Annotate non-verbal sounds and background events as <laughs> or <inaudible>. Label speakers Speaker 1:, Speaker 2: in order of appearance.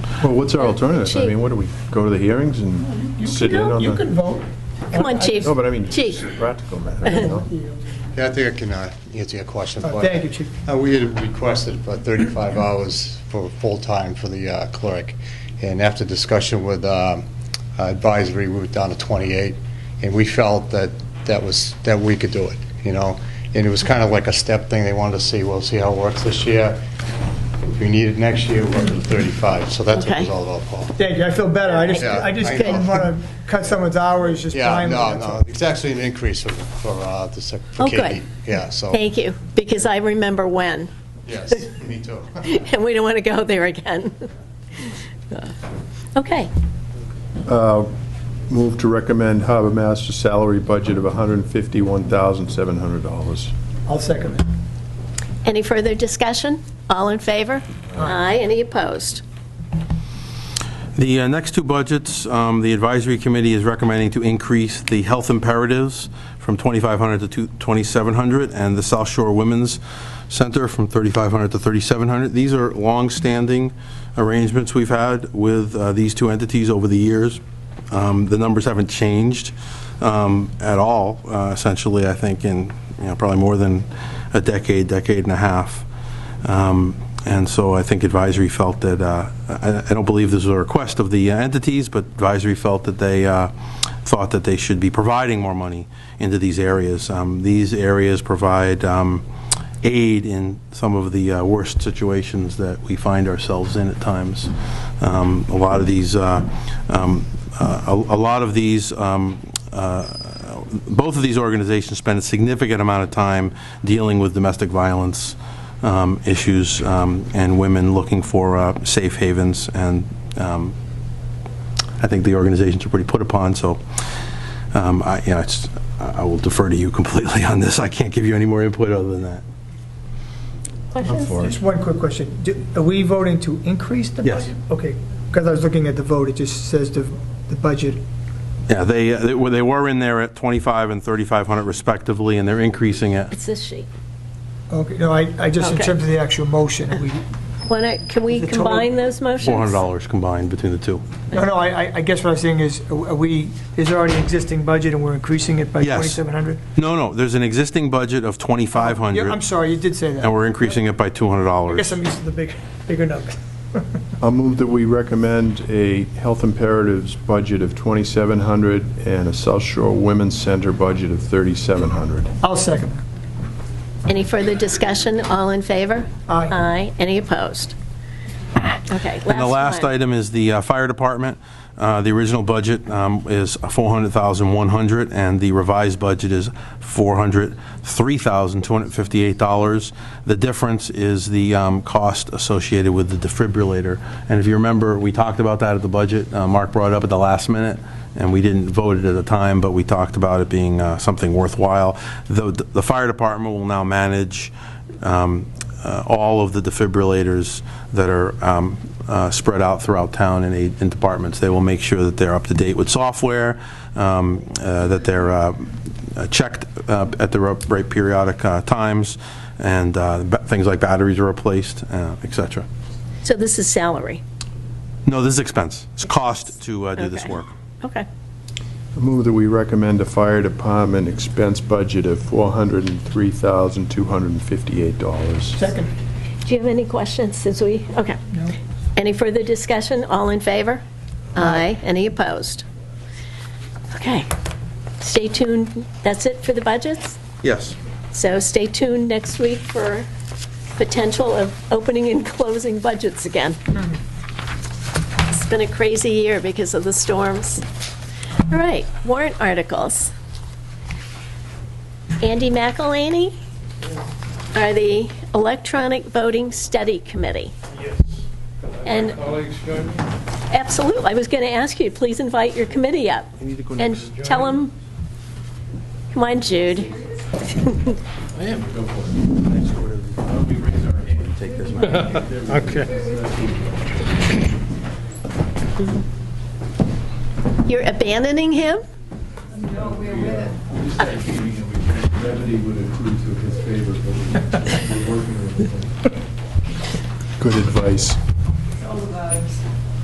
Speaker 1: Well, what's our alternative? I mean, what do we, go to the hearings and sit in on
Speaker 2: You can
Speaker 1: the...
Speaker 2: vote.
Speaker 3: Come on, Chief.
Speaker 1: No, but I mean, it's
Speaker 3: Chief.
Speaker 1: a practical matter, you know?
Speaker 4: Yeah, I think I can uh, answer your question.
Speaker 2: Uh,
Speaker 4: but-
Speaker 2: Thank you, Chief.
Speaker 4: Uh, We had requested for 35 hours for full-time for the uh, clerk, and after discussion with um, advisory, we were down to 28, and we felt that that was, that we could do it, you know? And it was kind of like a step thing, they wanted to see, well, see how it works this year. If we need it next year, we'll do 35, so that's what it was
Speaker 3: Okay.
Speaker 4: all about, Paul.
Speaker 2: Thank you, I feel better. I just,
Speaker 4: Yeah,
Speaker 2: I just
Speaker 4: I
Speaker 2: didn't
Speaker 4: know.
Speaker 2: want to cut someone's hours, just
Speaker 4: Yeah,
Speaker 2: time.
Speaker 4: no,
Speaker 2: that's
Speaker 4: no,
Speaker 2: all.
Speaker 4: it's actually an increase for- for uh, the sec- for
Speaker 3: Oh, good.
Speaker 4: Katie. Yeah, so.
Speaker 3: Thank you, because I remember when, <laughs>
Speaker 4: Yes, me too. <laughs>
Speaker 3: and we don't want to go there again. <laughs> Okay,
Speaker 1: Move to recommend harbor master salary budget of $151,700.
Speaker 2: I'll second it.
Speaker 3: any further discussion? All in favor? Aye, any opposed?
Speaker 5: The uh, next two budgets, um, the advisory committee is recommending to increase the health imperatives from 2,500 to 2,700, and the South Shore Women's Center from 3,500 to 3,700. These are longstanding arrangements we've had with uh, these two entities over the years. Um, The numbers haven't changed um, at all, uh, essentially, I think, in, you know, probably more than a decade, decade and a half. Um, And so I think advisory felt that, uh, I I don't believe this was a request of the uh, entities, but advisory felt that they uh, thought that they should be providing more money into these areas. Um, These areas provide um, aid in some of the uh, worst situations that we find ourselves in at times. Um, A lot of these, uh, um, uh, a a lot of these um, uh, both of these organizations spend a significant amount of time dealing with domestic violence um, issues um, and women looking for uh, safe havens, and um, I think the organizations are pretty put upon, so, um, I, you know, it's, I I will defer to you <laughs> completely on this. I can't give you any more input other than that.
Speaker 2: Just one quick question. Do- Are we voting to increase the
Speaker 5: Yes.
Speaker 2: budget? Okay, because I was looking at the vote, it just says the, the budget.
Speaker 5: Yeah, they, uh, they were- they were in there at 25 and 3,500 respectively, and they're increasing it.
Speaker 3: It's this sheet.
Speaker 2: Okay, no, I, I just, in
Speaker 3: Okay.
Speaker 2: terms of the actual motion, we,
Speaker 3: Wanna, can we
Speaker 2: The total-
Speaker 3: combine those motions?
Speaker 5: $400 combined between the two.
Speaker 2: no, no, I, I- I guess what I'm saying is, are we, is already an existing budget and we're increasing it by
Speaker 5: Yes.
Speaker 2: 2,700?
Speaker 5: No, no, there's an existing budget of 2,500.
Speaker 2: Yeah, I'm sorry, you did say that.
Speaker 5: And we're increasing it by $200.
Speaker 2: I guess I'm used to the big, bigger numbers.
Speaker 1: I'll move that we recommend a health imperatives budget of 2,700 and a South Shore Women's Center budget of 3,700.
Speaker 2: I'll second that.
Speaker 3: Any further discussion? All in favor?
Speaker 2: Aye.
Speaker 3: Aye, any opposed? Okay, last one.
Speaker 5: And the last item is the uh, fire department. Uh, The original budget um, is 400100 and the revised budget is $403,258. The difference is the um, cost associated with the defibrillator. And if you remember, we talked about that at the budget. Uh, Mark brought it up at the last minute, and we didn't vote it at the time, but we talked about it being uh, something worthwhile. The the fire department will now manage um, uh, all of the defibrillators that are um, uh, spread out throughout town in eight- in departments. They will make sure that they're up to date with software, um, uh, that they're uh, uh, checked uh, at the ro- right periodic uh, times, and uh, ba- things like batteries are replaced, uh, et cetera.
Speaker 3: So this is salary?
Speaker 5: No, this is expense. It's cost to uh, do this
Speaker 3: Okay.
Speaker 5: work.
Speaker 3: Okay.
Speaker 1: I move that we recommend a fire department expense budget of $403,258.
Speaker 2: Second.
Speaker 3: Do you have any questions since we, okay. Any further discussion? All in favor? Aye. Any opposed? Okay. Stay tuned. That's it for the budgets?
Speaker 5: Yes.
Speaker 3: So stay tuned next week for potential of opening and <laughs> closing budgets again. It's been a crazy year because of the storms. All right, warrant articles. Andy McElhaney are the Electronic Voting Study Committee. And,
Speaker 6: colleagues join me?
Speaker 3: absolutely, I was going to ask you, please invite your committee up. And tell them, come on, Jude.
Speaker 6: I am.
Speaker 5: Take this,
Speaker 6: Okay.
Speaker 3: You're abandoning him?
Speaker 6: Remedy would accrue to his favor, but we're working with him.
Speaker 1: <laughs> Good advice.